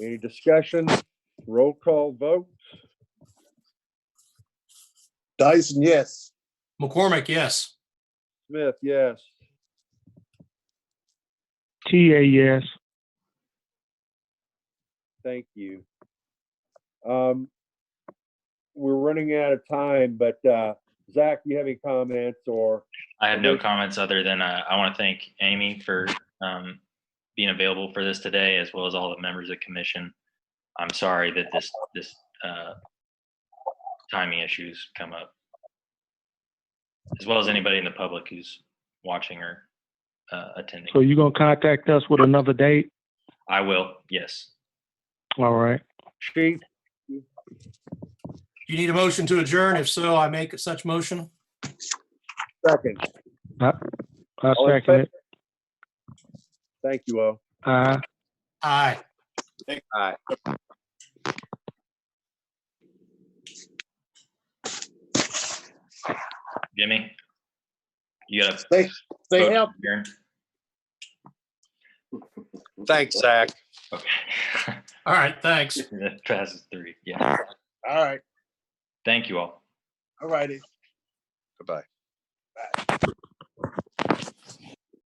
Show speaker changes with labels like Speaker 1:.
Speaker 1: Any discussion? Roll call vote?
Speaker 2: Dyson, yes.
Speaker 3: McCormick, yes.
Speaker 1: Smith, yes.
Speaker 4: TA, yes.
Speaker 1: Thank you. Um, we're running out of time, but, uh, Zach, you have any comments or,
Speaker 5: I have no
Speaker 1: Okay.
Speaker 5: comments other than uh, I want to thank Amy for um, being available for this today, as well as all the members of the commission. I'm sorry that this this uh, timing issues come up, as well as anybody in the public who's watching or uh, attending.
Speaker 4: So you gonna contact us with another date?
Speaker 5: I will. Yes.
Speaker 4: All right.
Speaker 1: Chief,
Speaker 3: You need a motion to adjourn? If so, I make such motion.
Speaker 1: second?
Speaker 4: I
Speaker 1: All in
Speaker 4: second it.
Speaker 1: Thank you all.
Speaker 4: Aye.
Speaker 3: Aye.
Speaker 5: Jimmy, you got to
Speaker 2: They, they have,
Speaker 6: Thanks, Zach.
Speaker 5: Okay.
Speaker 3: All right, thanks.
Speaker 5: that passes three. Yeah.
Speaker 2: all right,
Speaker 5: Thank you all.
Speaker 2: all righty.
Speaker 6: Goodbye.